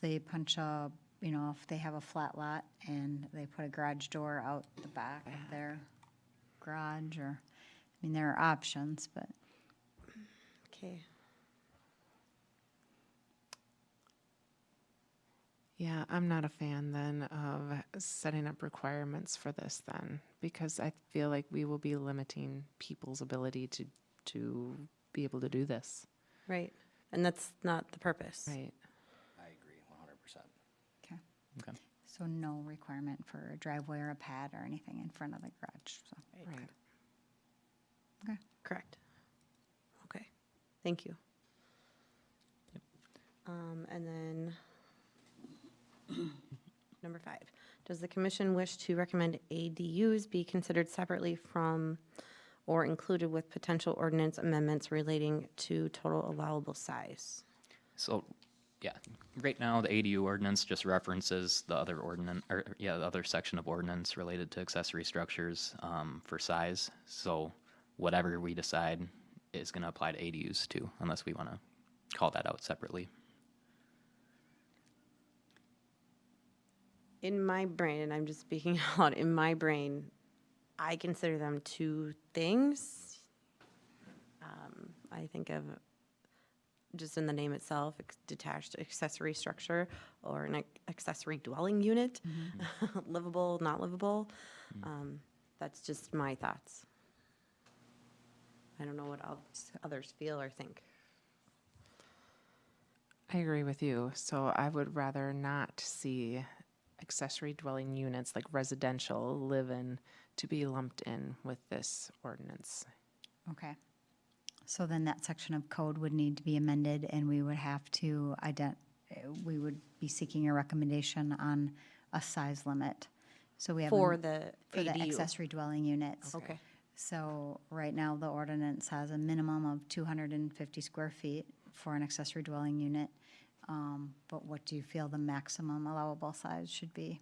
they punch a, you know, if they have a flat lot and they put a garage door out the back of their garage or, I mean, there are options, but Okay. Yeah, I'm not a fan then of setting up requirements for this then, because I feel like we will be limiting people's ability to, to be able to do this. Right. And that's not the purpose. Right. I agree, one hundred percent. Okay. Okay. So no requirement for a driveway or a pad or anything in front of the garage, so. Right. Correct. Okay. Thank you. Um, and then number five, does the commission wish to recommend ADUs be considered separately from or included with potential ordinance amendments relating to total allowable size? So, yeah, right now, the ADU ordinance just references the other ordinance, or, yeah, the other section of ordinance related to accessory structures, um, for size. So whatever we decide is gonna apply to ADUs too, unless we wanna call that out separately. In my brain, and I'm just speaking out, in my brain, I consider them two things. Um, I think of, just in the name itself, ex- detached accessory structure or an ac- accessory dwelling unit, livable, not livable. Um, That's just my thoughts. I don't know what others- others feel or think. I agree with you. So I would rather not see accessory dwelling units like residential live-in to be lumped in with this ordinance. Okay. So then that section of code would need to be amended and we would have to ident, eh, we would be seeking a recommendation on a size limit. So we have. a- For the For the ADU. accessory dwelling units. Okay. So right now, the ordinance has a minimum of two hundred and fifty square feet for an accessory dwelling unit. Um, But what do you feel the maximum allowable size should be?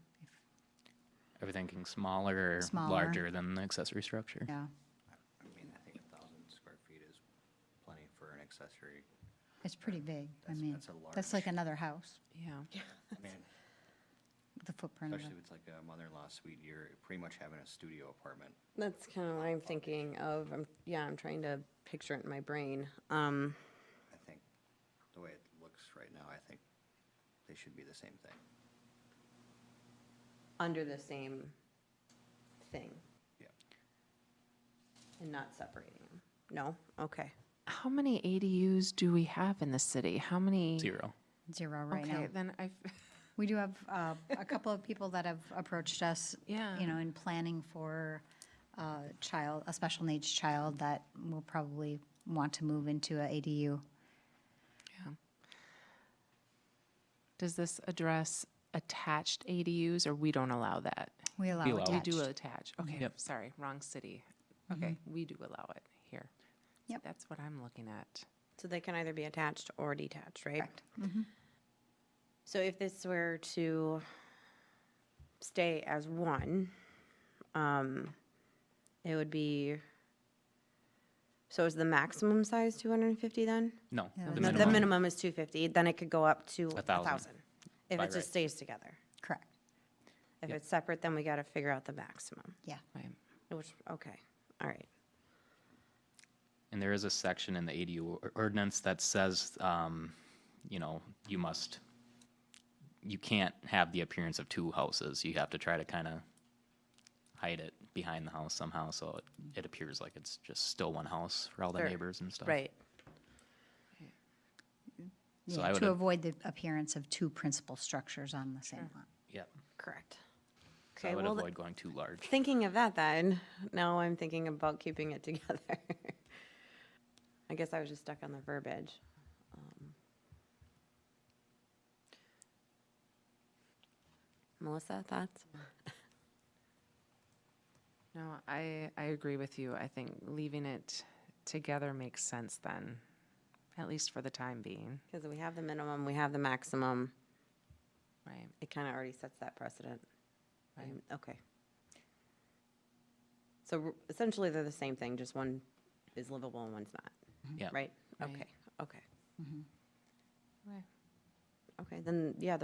Are we thinking smaller, or Smaller. larger than the accessory structure? Yeah, I mean, I think a thousand square feet is plenty for an accessory. it's pretty big. I That's- mean, that's a that's large- like another house, Yeah. I mean, the footprint of it. especially if it's like a mother-in-law suite, you're pretty much having a studio apartment. That's kind of what I'm thinking of. I'm, yeah, I'm trying to picture it in my brain. Um, I think the way it looks right now, I think they should be the same thing. under the same thing Yeah. and not separating them. No? Okay. How many ADUs do we have in the city? How many? Zero. Zero right now. Okay, then I've, We do have uh, a couple of people that have approached us, Yeah. you know, in planning for a child, a special needs child that will probably want to move into a ADU. does this address attached ADUs or we don't allow that? We allow We allow it. We attached. do attach, okay, Yep. Mm-hmm. sorry, wrong city. Okay, we do allow it here. Yep. That's what I'm looking at. So they can either be attached or detached, right? So if this were to stay as one, um, it would be, so is the maximum size 250 then? No. Yeah, No, The minimum is 250, then it could go up to A 1,000. thousand. If By it right. just stays together. Correct, If Yep. it's separate, then we got to figure out the maximum, yeah. Right. which, okay, all right. And there is a section in the ADU or- ordinance that says, um, you know, you must, you can't have the appearance of two houses. You have to try to kind of hide it behind the house somehow, so it, it appears like it's just still one house for all the Sure. neighbors and stuff. Right. So Yeah, I would To have- avoid the appearance of two principal structures on the same lot. Yeah. Correct. So Okay, I would well, th- avoid going too large. Thinking of that then, now I'm thinking about keeping it together. I guess I was just stuck on the verbiage. Um, Melissa, thoughts? No, I, I agree with you. I think leaving it together makes sense then, at least for the time being, Because we have the minimum, we have the maximum. right? It kind of already sets that precedent. Um, Okay. So r- essentially, they're the same thing, just one is livable and one's not, Yeah. right? Right. Okay, okay. Right. Okay, then, yeah,